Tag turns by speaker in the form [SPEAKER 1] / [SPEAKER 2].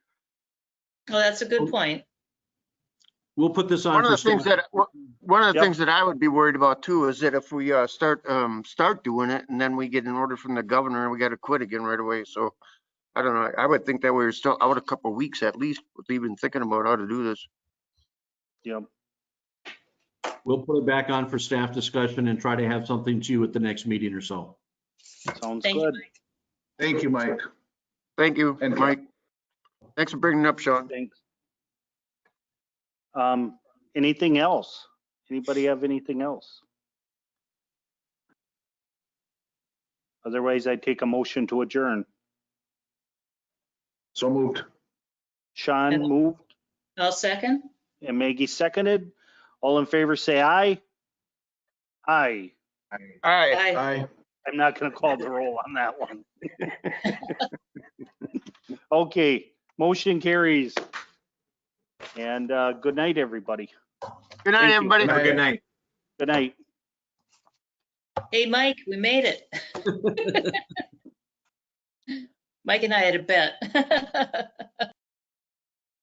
[SPEAKER 1] Well, that's a good point.
[SPEAKER 2] We'll put this on.
[SPEAKER 3] One of
[SPEAKER 2] for
[SPEAKER 3] the things
[SPEAKER 2] staff.
[SPEAKER 3] that, one of the
[SPEAKER 2] Yep.
[SPEAKER 3] things that I would be worried about too is that if we uh, start, um, start doing it and then we get an order from the governor and we got to quit again right away. So I don't know. I would think that we're still out a couple of weeks at least with even thinking about how to do this.
[SPEAKER 4] Yep.
[SPEAKER 2] We'll put it back on for staff discussion and try to have something to you at the next meeting or so.
[SPEAKER 4] Sounds
[SPEAKER 1] Thank you.
[SPEAKER 4] good.
[SPEAKER 1] Mike.
[SPEAKER 5] Thank you, Mike.
[SPEAKER 3] Thank you,
[SPEAKER 5] And-
[SPEAKER 3] Mike. Thanks for bringing it up, Sean.
[SPEAKER 4] Thanks. Um, anything else? Anybody have anything else? Otherwise, I take a motion to adjourn.
[SPEAKER 5] So moved.
[SPEAKER 4] Sean
[SPEAKER 1] And-
[SPEAKER 4] moved
[SPEAKER 1] I'll second.
[SPEAKER 4] and Maggie seconded. All in favor, say aye. Aye.
[SPEAKER 3] All right.
[SPEAKER 1] Bye.
[SPEAKER 5] Aye.
[SPEAKER 4] I'm not gonna call the roll on that one. Okay, motion carries. And, uh, good night, everybody.
[SPEAKER 3] Good
[SPEAKER 4] Thank
[SPEAKER 3] night,
[SPEAKER 4] you.
[SPEAKER 3] everybody.
[SPEAKER 5] Good night.
[SPEAKER 2] Good night.
[SPEAKER 4] Good night.
[SPEAKER 1] Hey, Mike, we made it. Mike and I had a bet.